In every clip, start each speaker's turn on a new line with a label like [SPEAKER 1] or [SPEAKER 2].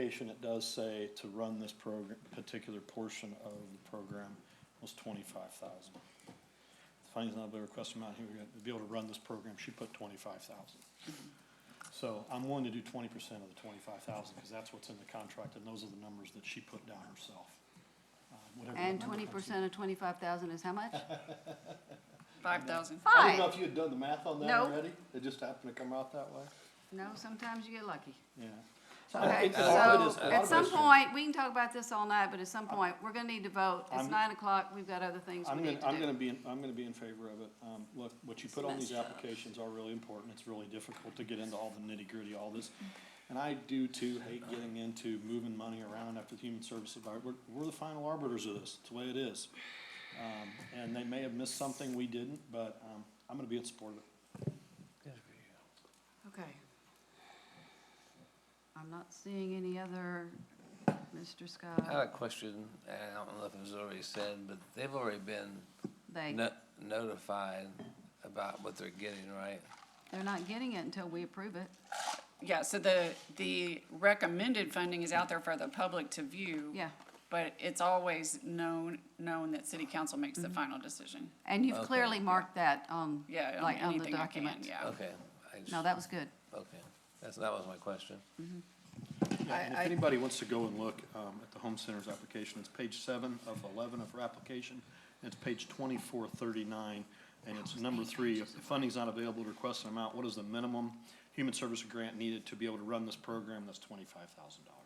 [SPEAKER 1] application, it does say to run this program, particular portion of the program was twenty-five thousand. The Findings not be request amount here, to be able to run this program, she put twenty-five thousand. So I'm willing to do twenty percent of the twenty-five thousand, because that's what's in the contract, and those are the numbers that she put down herself. Uh, whatever that
[SPEAKER 2] And
[SPEAKER 1] number
[SPEAKER 2] twenty
[SPEAKER 1] comes to.
[SPEAKER 2] percent of twenty-five thousand is how much?
[SPEAKER 3] Five thousand.
[SPEAKER 1] I didn't know
[SPEAKER 2] Five.
[SPEAKER 1] if you had done the math on that
[SPEAKER 2] No.
[SPEAKER 1] already, it just happened to come out that way,
[SPEAKER 2] No, sometimes you get lucky.
[SPEAKER 1] yeah. I
[SPEAKER 2] Okay,
[SPEAKER 1] think a lot of it is-
[SPEAKER 2] so
[SPEAKER 1] a lot of
[SPEAKER 2] at
[SPEAKER 1] it
[SPEAKER 2] some
[SPEAKER 1] is-
[SPEAKER 2] point, we can talk about this all night, but at some point, we're gonna need to vote. It's
[SPEAKER 1] I'm-
[SPEAKER 2] nine o'clock, we've got other things we
[SPEAKER 1] I'm gonna,
[SPEAKER 2] need to
[SPEAKER 1] I'm
[SPEAKER 2] do.
[SPEAKER 1] gonna be, in- I'm gonna be in favor of it. Um, look, what you put on these
[SPEAKER 3] messed up.
[SPEAKER 1] applications are really important. It's really difficult to get into all the nitty gritty, all this.
[SPEAKER 2] Mm-hmm.
[SPEAKER 1] And I do too hate getting into moving money around after the human services, Advi- we're, we're the final arbiters of this. It's the way it is. Um, and they may have missed something we didn't, but, um, I'm gonna be in support of it.
[SPEAKER 2] Okay. I'm not seeing any other, Mr.
[SPEAKER 4] I have
[SPEAKER 2] Scott.
[SPEAKER 4] a question, and I don't know if it was already said, but they've already been
[SPEAKER 2] They,
[SPEAKER 4] no- notified about what they're getting, right?
[SPEAKER 2] they're not getting it until we approve it.
[SPEAKER 3] Yeah, so the, the recommended funding is out there for the public to view.
[SPEAKER 2] Yeah.
[SPEAKER 3] But it's always known, known that city council makes
[SPEAKER 2] Mm-hmm.
[SPEAKER 3] the final decision.
[SPEAKER 2] And you've
[SPEAKER 4] Okay.
[SPEAKER 2] clearly marked that on,
[SPEAKER 3] Yeah, on
[SPEAKER 2] like, on the
[SPEAKER 3] anything I can,
[SPEAKER 2] document.
[SPEAKER 3] yeah.
[SPEAKER 4] Okay. I
[SPEAKER 2] No,
[SPEAKER 4] just-
[SPEAKER 2] that was good.
[SPEAKER 4] Okay, that's, that was my question.
[SPEAKER 1] Yeah, and if
[SPEAKER 2] I- I-
[SPEAKER 1] anybody wants to go and look, um, at the Home Center's application, it's page seven of eleven of her application. and It's page twenty-four thirty-nine, and it's number three, if the funding's not available, request an amount, what is the minimum human service grant needed to be able to run this program? That's twenty-five thousand dollars.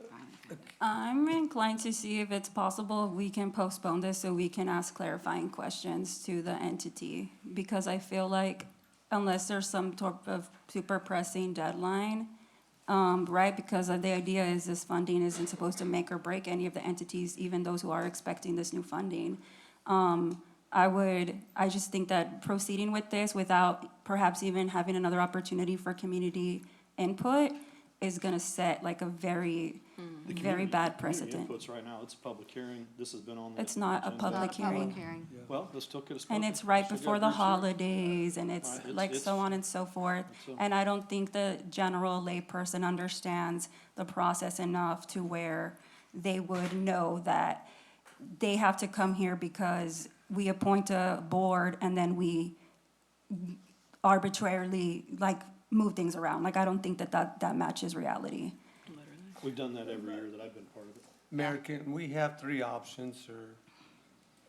[SPEAKER 2] There, finally.
[SPEAKER 5] I'm inclined to see if it's possible, we can postpone this so we can ask clarifying questions to the entity. Because I feel like unless there's some sort of super pressing deadline, um, right? Because the idea is this funding isn't supposed to make or break any of the entities, even those who are expecting this new funding. Um, I would, I just think that proceeding with this without perhaps even having another opportunity for community input is gonna set like a very,
[SPEAKER 1] Mm.
[SPEAKER 5] very bad precedent.
[SPEAKER 1] Inputs right now, it's a public hearing, this has been on the.
[SPEAKER 5] It's not a
[SPEAKER 1] agenda.
[SPEAKER 2] Not a
[SPEAKER 5] Public hearing.
[SPEAKER 2] hearing.
[SPEAKER 1] Well, this still could have.
[SPEAKER 5] And it's right before the holidays, and
[SPEAKER 1] Right,
[SPEAKER 5] it's
[SPEAKER 1] it's-
[SPEAKER 5] like so
[SPEAKER 1] it's-
[SPEAKER 5] on and so forth.
[SPEAKER 1] It's uh, a-
[SPEAKER 5] And I don't think the general layperson understands the process enough to where they would know that they have to come here because we appoint a board and then we arbitrarily, like, move things around. Like, I don't think that that, that matches reality.
[SPEAKER 1] We've done that every year that I've been part of it.
[SPEAKER 6] Mayor, can we have three options, or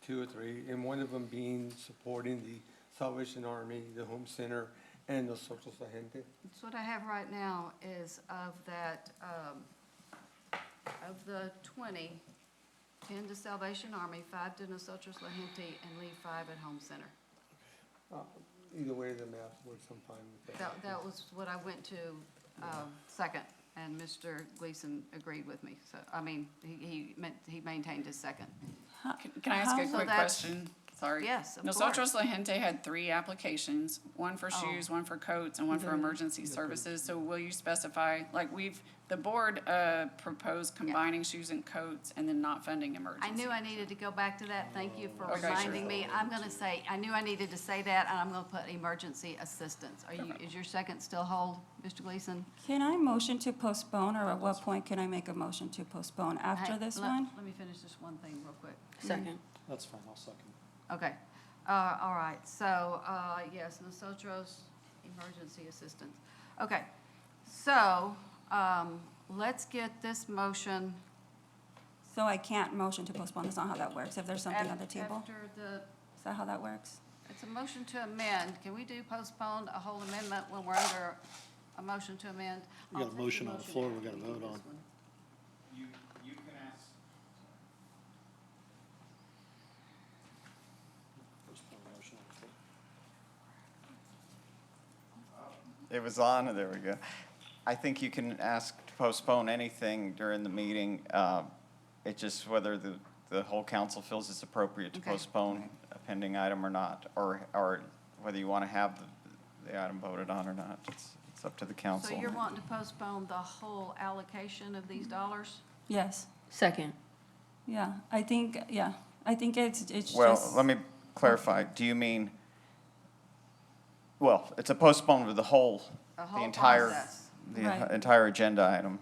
[SPEAKER 6] two or three, and one of them being supporting the Salvation Army, the Home Center, and Los Otros La Gente?
[SPEAKER 2] That's what I have right now is of that, um, of the twenty, ten to Salvation Army, five to Nosotros La Gente, and leave five at Home Center.
[SPEAKER 6] Uh, Either way, the math works, I'm fine with that.
[SPEAKER 2] That, that was what I went to, um, second, and Mr. Gleason agreed with me, so, I mean, he, he meant, he maintained his second.
[SPEAKER 3] Can can I ask a
[SPEAKER 2] So
[SPEAKER 3] quick
[SPEAKER 2] that's-
[SPEAKER 3] question? Sorry.
[SPEAKER 2] Yes, of
[SPEAKER 3] Nosotros La Gente had three applications, one for
[SPEAKER 2] Oh. Mm-hmm.
[SPEAKER 3] shoes, one for coats, and one for emergency services. So will you specify, like, we've, the board uh, proposed combining shoes and coats and then not funding emergency.
[SPEAKER 2] I knew I needed to go back to that, thank you for
[SPEAKER 3] Okay, sure.
[SPEAKER 2] reminding me, I'm gonna say, I knew I needed to say that, and I'm gonna put emergency assistance. Are you, is your second still hold, Mr. Gleason?
[SPEAKER 5] Can I motion to postpone, or at what point can I make a motion to postpone? After
[SPEAKER 2] Hey,
[SPEAKER 5] this
[SPEAKER 2] let-
[SPEAKER 5] one?
[SPEAKER 2] Let me finish this one thing real quick.
[SPEAKER 7] Second.
[SPEAKER 1] That's fine, I'll second.
[SPEAKER 2] Okay, uh, all right, so, uh, yes, Nosotros Emergency Assistance. Okay, so, um, let's get this motion.
[SPEAKER 5] So I can't motion to postpone, that's not how that works, if there's something on the
[SPEAKER 2] af-
[SPEAKER 5] table?
[SPEAKER 2] After the,
[SPEAKER 5] Is that how that works?
[SPEAKER 2] it's a motion to amend, can we do postpone a whole amendment when we're under a motion to amend?
[SPEAKER 1] We got a
[SPEAKER 2] I'll take the
[SPEAKER 1] motion on the floor we
[SPEAKER 2] after
[SPEAKER 1] gotta
[SPEAKER 2] we do
[SPEAKER 1] vote
[SPEAKER 2] this
[SPEAKER 1] on.
[SPEAKER 2] one.
[SPEAKER 8] You, you can ask, it was on, there we go. I think you can ask to postpone anything during the meeting. uh, It's just whether the, the whole council feels it's appropriate to
[SPEAKER 2] Okay.
[SPEAKER 8] postpone a pending item or not, or, or whether you want to have the, the item voted on or not. It's, it's up to the council.
[SPEAKER 2] So you're wanting to postpone the whole allocation of these dollars?
[SPEAKER 5] Yes,
[SPEAKER 7] Second.
[SPEAKER 5] yeah, I think, yeah, I think it's, it's just.
[SPEAKER 8] Well, let me clarify. Do you mean, well, it's a postponement of the whole,
[SPEAKER 2] The
[SPEAKER 8] the
[SPEAKER 2] whole
[SPEAKER 8] entire,
[SPEAKER 2] process.
[SPEAKER 8] the
[SPEAKER 5] Right.
[SPEAKER 8] entire agenda item.